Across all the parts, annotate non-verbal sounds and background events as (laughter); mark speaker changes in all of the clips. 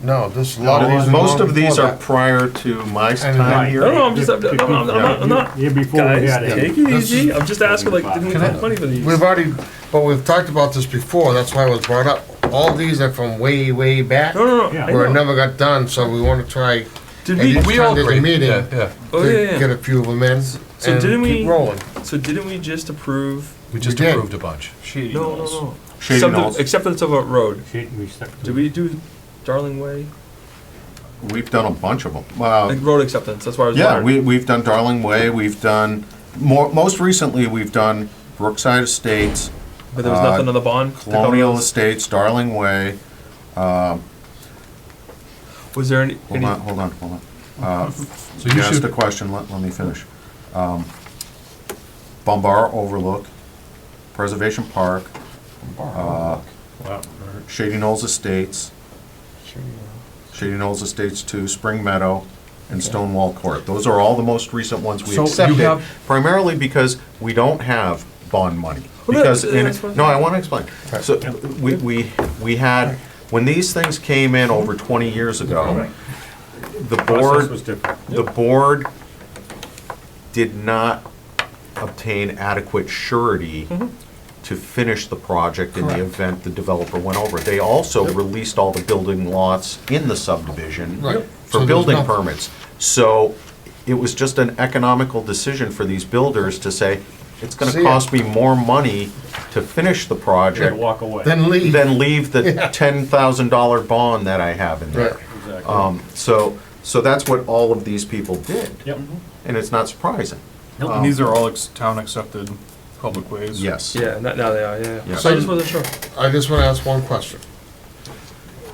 Speaker 1: No, this
Speaker 2: No,
Speaker 1: lot
Speaker 2: these-
Speaker 1: was.
Speaker 2: Most of these are prior to my time
Speaker 3: Right.
Speaker 2: here.
Speaker 3: No, no, I'm just, I'm not, I'm not, I'm not.
Speaker 4: Yeah, before we
Speaker 3: Guys,
Speaker 4: had it.
Speaker 3: take it easy. I'm just asking, like, didn't we
Speaker 1: Can I-
Speaker 3: have money for these?
Speaker 1: We've already, but we've talked about this before, that's why it was brought up. All these are from way, way back,
Speaker 3: No, no, no.
Speaker 4: Yeah.
Speaker 3: I
Speaker 1: where it
Speaker 3: know.
Speaker 1: never got done, so we wanna try
Speaker 3: Did
Speaker 1: at
Speaker 3: we,
Speaker 1: least
Speaker 5: We all
Speaker 1: time there's a
Speaker 5: agree.
Speaker 1: meeting
Speaker 5: Yeah,
Speaker 1: to
Speaker 5: yeah.
Speaker 3: oh, yeah,
Speaker 1: get
Speaker 3: yeah.
Speaker 1: a few of them in and
Speaker 3: didn't we-
Speaker 1: keep rolling.
Speaker 3: So didn't we just approve?
Speaker 5: We just
Speaker 1: We did.
Speaker 5: approved a bunch.
Speaker 3: No, no, no.
Speaker 2: Shady
Speaker 3: Acceptance-
Speaker 2: Knolls.
Speaker 3: Acceptance of a road.
Speaker 4: Shit, we stuck
Speaker 3: Did
Speaker 4: to it.
Speaker 3: we do Darling Way?
Speaker 2: We've done a bunch of them. Well,
Speaker 3: Like road acceptance, that's why I was
Speaker 2: Uh, yeah,
Speaker 3: wondering.
Speaker 2: we, we've done Darling Way, we've done, more, most recently, we've done Brookside Estates,
Speaker 3: But there was
Speaker 2: uh,
Speaker 3: nothing on the bond?
Speaker 2: Colonial Estates, Darling Way,
Speaker 3: Was there any,
Speaker 2: hold
Speaker 3: any,
Speaker 2: on, hold on, hold on. Uh,
Speaker 5: So
Speaker 2: You
Speaker 5: you
Speaker 2: asked a
Speaker 5: should,
Speaker 2: question, let, let me finish. Um, Bumbar Overlook, Preservation Park, uh,
Speaker 4: Wow.
Speaker 2: Shady Knolls Estates, Shady Knolls Estates Two, Spring Meadow, and Stonewall Court. Those are all the most recent ones we
Speaker 5: So you
Speaker 2: accepted,
Speaker 5: have-
Speaker 2: primarily because we don't have bond money.
Speaker 3: Well, no,
Speaker 2: Because,
Speaker 3: uh,
Speaker 2: in-
Speaker 3: that's what-
Speaker 2: no, I want to explain. So, we, we, we had, when these things came in over twenty years ago, the
Speaker 4: Process
Speaker 2: board
Speaker 4: was different.
Speaker 2: the board did not obtain adequate surety
Speaker 1: Mm-hmm.
Speaker 2: to finish the project in the event the developer went over. They also released all the building lots in the subdivision
Speaker 1: Right. So
Speaker 2: for
Speaker 1: there's
Speaker 2: building
Speaker 1: nothing.
Speaker 2: permits. So it was just an economical decision for these builders to say,
Speaker 1: See
Speaker 2: it's gonna
Speaker 1: ya."
Speaker 2: cost me more money to finish the
Speaker 4: Had to
Speaker 2: project
Speaker 4: walk away.
Speaker 1: Then leave.
Speaker 2: than leave the ten thousand dollar bond that I have in
Speaker 1: Right.
Speaker 2: there. Um, so, so that's what all of these people did,
Speaker 4: Yep.
Speaker 2: and it's not surprising.
Speaker 5: and these are all ex- town-accepted public ways.
Speaker 2: uh, Yes.
Speaker 3: yeah, no- now they are, yeah, yeah.
Speaker 2: Yeah.
Speaker 3: So I just wasn't sure.
Speaker 1: I just wanna ask one question.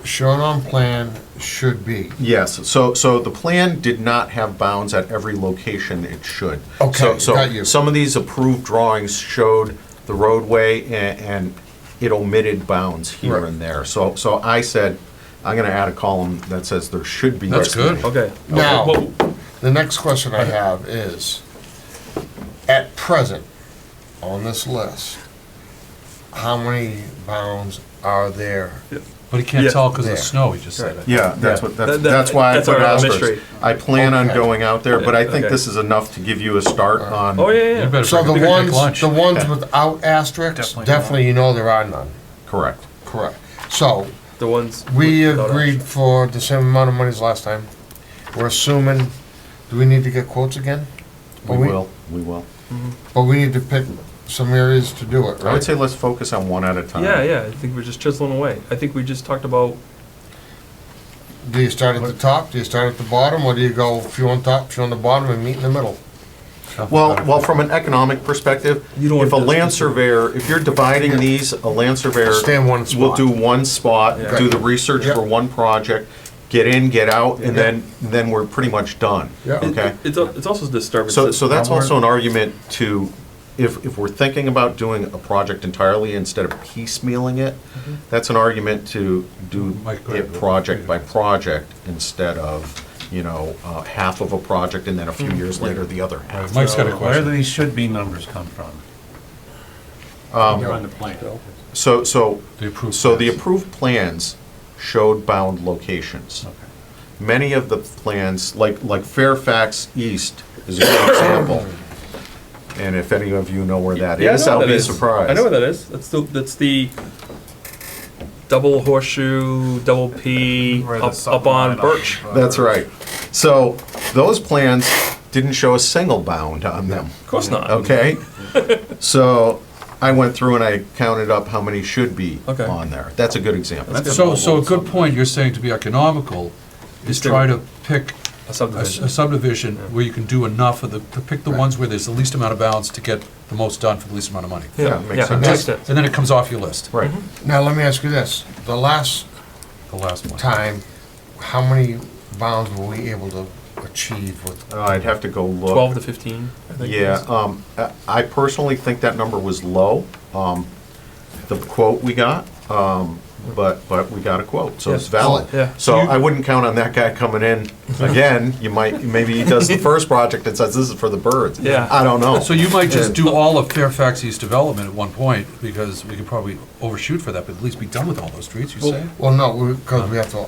Speaker 1: Shown on plan should be,
Speaker 2: Yes, so, so the plan did not have bounds at every location it should.
Speaker 1: Okay,
Speaker 2: So-
Speaker 1: got you.
Speaker 2: So, some of these approved drawings showed the roadway a- and it omitted bounds here
Speaker 1: Right.
Speaker 2: and there. So, so I said, I'm gonna add a column that says there should be.
Speaker 1: That's good.
Speaker 3: Okay.
Speaker 1: Now-
Speaker 3: Well,
Speaker 1: The next question I have is, at present, on this list, how many bounds are there?
Speaker 5: But he can't
Speaker 3: Yeah.
Speaker 5: tell because of
Speaker 1: There.
Speaker 5: the snow, he just said it.
Speaker 2: Yeah, that's what,
Speaker 3: Yeah.
Speaker 2: that's,
Speaker 3: That- that-
Speaker 2: that's why I
Speaker 3: that's
Speaker 2: put
Speaker 3: our
Speaker 2: asterisks.
Speaker 3: mystery.
Speaker 2: I plan on
Speaker 1: Okay.
Speaker 2: going out there, but I think
Speaker 3: Okay.
Speaker 2: this is enough to give you a start on.
Speaker 3: Oh, yeah,
Speaker 5: You
Speaker 3: yeah,
Speaker 5: better
Speaker 1: So
Speaker 5: bring
Speaker 1: the
Speaker 5: a picnic
Speaker 1: ones,
Speaker 5: lunch.
Speaker 1: the ones without asterisks,
Speaker 5: Definitely not.
Speaker 1: definitely you know there are none,
Speaker 2: Correct.
Speaker 1: correct. So,
Speaker 3: the ones.
Speaker 1: we
Speaker 3: without
Speaker 1: agreed for the same amount of money as last time. We're assuming, do we need to get quotes again?
Speaker 2: We
Speaker 1: But we-
Speaker 2: will, we will.
Speaker 1: But we need to pick some areas to do it,
Speaker 2: I would
Speaker 1: right?
Speaker 2: say let's focus on one at a time.
Speaker 3: Yeah, yeah, I think we're just chiseling away. I think we just talked about,
Speaker 1: Do you start at the top, do you start at the bottom, or do you go few on top, few on the bottom, and meet in the middle?
Speaker 2: Well, well, from an economic perspective,
Speaker 3: You don't
Speaker 2: if a
Speaker 3: want this-
Speaker 2: land surveyor, if you're dividing these, a land surveyor
Speaker 1: Stay in one
Speaker 2: will
Speaker 1: spot.
Speaker 2: do one spot,
Speaker 3: Yeah.
Speaker 2: do the research
Speaker 1: Yep.
Speaker 2: for one project, get in, get out, and
Speaker 1: Yeah.
Speaker 2: then, then we're pretty much done.
Speaker 1: Yeah.
Speaker 3: it-
Speaker 2: Okay?
Speaker 3: it's, al- it's also disturbing.
Speaker 2: So, so that's
Speaker 1: Somewhere.
Speaker 2: also an argument to, if, if we're thinking about doing a project entirely instead of piecemealing it, that's an argument to do
Speaker 5: Mike, go
Speaker 2: it
Speaker 5: ahead.
Speaker 2: project by project instead of, you know, uh, half of a project and then a few years later, the other
Speaker 5: Right,
Speaker 2: half.
Speaker 5: Mike's got a
Speaker 4: Where do
Speaker 5: question.
Speaker 4: these should be numbers come from? On the plan.
Speaker 2: So, so,
Speaker 5: The approved
Speaker 2: Um, so the
Speaker 5: plans.
Speaker 2: approved plans showed bound locations.
Speaker 4: Okay.
Speaker 2: Many of the plans, like, like Fairfax East is a good example. And if any of you know where that
Speaker 3: Yeah, I
Speaker 2: is,
Speaker 3: know
Speaker 2: I'll
Speaker 3: what that
Speaker 2: be
Speaker 3: is.
Speaker 2: surprised.
Speaker 3: I know what that is. That's the, that's the double horseshoe, double P,
Speaker 5: Where the
Speaker 3: up, up on
Speaker 5: subline
Speaker 3: Birch.
Speaker 5: of, uh,
Speaker 2: That's right. So those plans didn't show a single bound on them,
Speaker 3: Of course not.
Speaker 2: okay? So I went through and I counted up how many should be
Speaker 3: Okay.
Speaker 2: on there. That's a good example.
Speaker 5: So, so a good point you're saying to be economical is try to pick
Speaker 3: A
Speaker 5: a s-
Speaker 3: subdivision.
Speaker 5: a subdivision where you can do enough of the, to pick the ones where there's the least amount of bounds to get the most done for the least amount of money.
Speaker 2: Yeah,
Speaker 3: Yeah,
Speaker 2: makes
Speaker 3: yeah,
Speaker 2: sense.
Speaker 3: makes sense.
Speaker 5: And then it comes off your list,
Speaker 2: Right.
Speaker 3: Mm-hmm.
Speaker 1: Now, let me ask you this, the last
Speaker 5: the last one.
Speaker 1: time, how many bounds were we able to achieve with?
Speaker 2: Uh, I'd have to go look.
Speaker 3: Twelve to fifteen. I think it
Speaker 2: Yeah,
Speaker 3: is.
Speaker 2: um, I- I personally think that number was low, um, the quote we got, um, but, but we got a quote, so it's
Speaker 3: Yeah.
Speaker 2: valid.
Speaker 3: Yeah.
Speaker 2: So I wouldn't count on that guy coming
Speaker 3: (laughs)
Speaker 2: in again, you might, maybe he does the first project and says, this is for the birds.
Speaker 3: Yeah.
Speaker 2: I don't
Speaker 3: (laughs)
Speaker 2: know.
Speaker 5: So you might just do all of Fairfax East development at one point, because we could probably overshoot for that, but at least be done with all those streets, you say?
Speaker 1: Well, no, because we have to